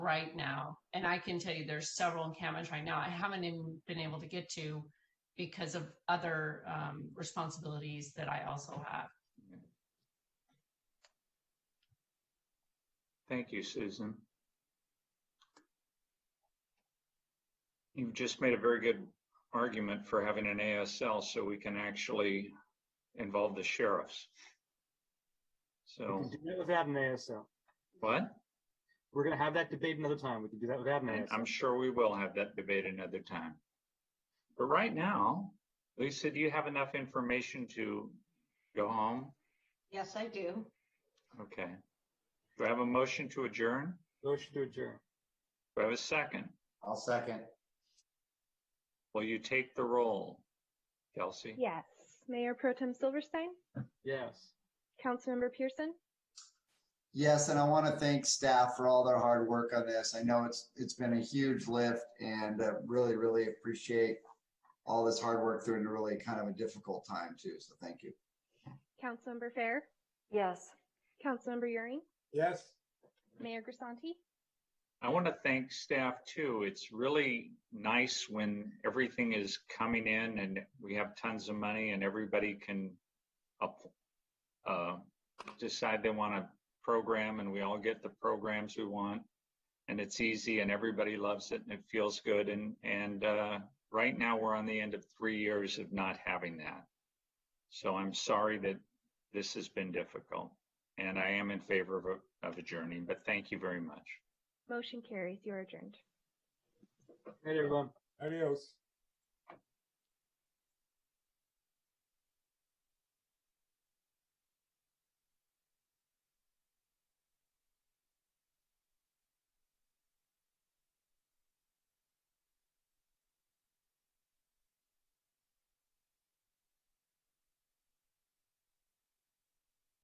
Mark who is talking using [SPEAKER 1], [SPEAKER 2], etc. [SPEAKER 1] right now. And I can tell you there's several encampments right now I haven't even been able to get to because of other um, responsibilities that I also have.
[SPEAKER 2] Thank you, Susan. You've just made a very good argument for having an ASL so we can actually involve the sheriffs.
[SPEAKER 3] We
[SPEAKER 2] So,
[SPEAKER 3] can do that without an ASL.
[SPEAKER 2] what?
[SPEAKER 3] We're gonna have that debate another time. We can do that without an
[SPEAKER 2] And
[SPEAKER 3] ASL.
[SPEAKER 2] I'm sure we will have that debate another time. But right now, Lisa, do you have enough information to go home?
[SPEAKER 4] Yes, I do.
[SPEAKER 2] Okay. Do I have a motion to adjourn?
[SPEAKER 3] Motion to adjourn.
[SPEAKER 2] Do I have a second?
[SPEAKER 5] I'll second.
[SPEAKER 2] Will you take the roll, Kelsey?
[SPEAKER 6] Yes. Mayor Pro Tem Silverstein,
[SPEAKER 3] Yes.
[SPEAKER 6] Councilmember Pearson,
[SPEAKER 5] Yes, and I want to thank staff for all their hard work on this. I know it's, it's been a huge lift and uh, really, really appreciate all this hard work through in a really kind of a difficult time too. So thank you.
[SPEAKER 6] Councilmember Fair,
[SPEAKER 7] Yes.
[SPEAKER 6] Councilmember Euring,
[SPEAKER 3] Yes.
[SPEAKER 6] Mayor Grisanti.
[SPEAKER 2] I want to thank staff too. It's really nice when everything is coming in and we have tons of money and everybody can up, uh, decide they want a program and we all get the programs we want. And it's easy and everybody loves it and it feels good. And, and, uh, right now we're on the end of three years of not having that. So I'm sorry that this has been difficult and I am in favor of, a- of adjourning, but thank you very much.
[SPEAKER 6] Motion carries. You are adjourned.
[SPEAKER 3] Hey, everyone.
[SPEAKER 8] Adios.